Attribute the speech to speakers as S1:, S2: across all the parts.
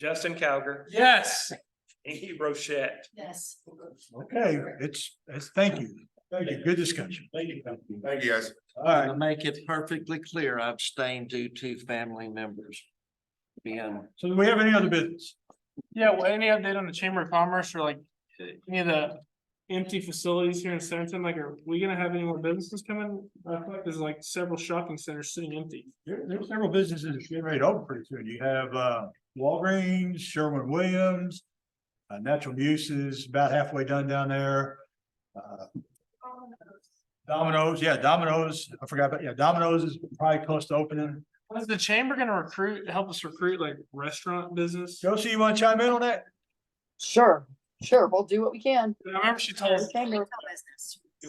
S1: Justin Cowger,
S2: Yes.
S1: Inky Rochette.
S3: Yes.
S4: Okay, it's, it's, thank you. Thank you. Good discussion.
S1: Thank you.
S5: Thank you, guys.
S4: All right.
S6: To make it perfectly clear, I abstained due to family members being
S4: So do we have any other business?
S2: Yeah, well, any update on the Chamber of Commerce or like uh, any of the empty facilities here in Centerton? Like, are we gonna have any more businesses coming? I feel like There's like several shopping centers sitting empty.
S4: There, there's several businesses that's getting ready to open pretty soon. You have, uh, Walgreens, Sherwin Williams. Uh, Natural Muse is about halfway done down there. Uh, Domino's, yeah, Domino's, I forgot, but yeah, Domino's is probably close to opening.
S2: Is the chamber gonna recruit, help us recruit like restaurant business?
S4: Josie, you want to chime in on that?
S7: Sure, sure, we'll do what we can.
S2: I remember she told us.
S7: Chamber,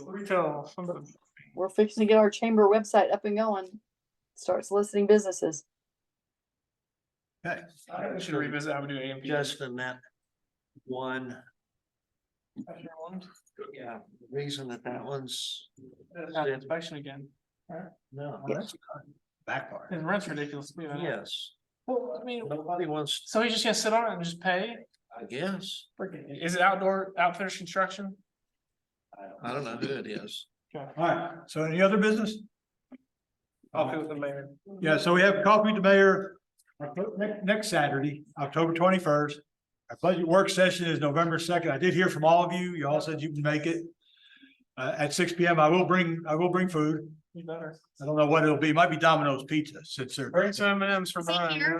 S2: Retail, something.
S7: we're fixing to get our chamber website up and going. Start soliciting businesses.
S4: Okay.
S2: I think we should revisit how we do AMP.
S6: just in that one, yeah, reason that that one's,
S2: Not the Inspection again.
S6: no,
S4: Well, that's Back part.
S2: And rent's ridiculous. you know?
S6: yes,
S2: Well, I mean,
S6: nobody wants,
S2: so he's just gonna sit on it and just pay?
S6: I guess,
S2: Freaking- Is it outdoor outfitters construction?
S6: I don't know who it is.
S2: Okay.
S4: All right, so any other business?
S2: I'll go with the mayor.
S4: Yeah, so we have coffee with the mayor Octo- next, next Saturday, October twenty-first. Our budget work session is November second. I did hear from all of you. You all said you can make it. Uh, at six P M, I will bring, I will bring food.
S2: You better.
S4: I don't know what it'll be. It Might be Domino's Pizza since they're.
S2: Bring some M and M's for
S3: Is it
S2: Brian.
S3: here?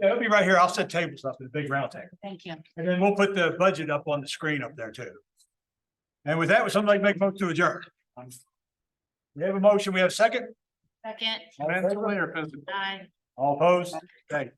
S4: Yeah, it'll be right here. I'll set tables up in a big round table.
S3: Thank you.
S4: And then we'll put the budget up on the screen up there too. And with that, would somebody make a motion to adjourn? We have a motion. We have a second.
S3: Second,
S2: Mentally or physically?
S3: aye.
S4: All opposed? Okay.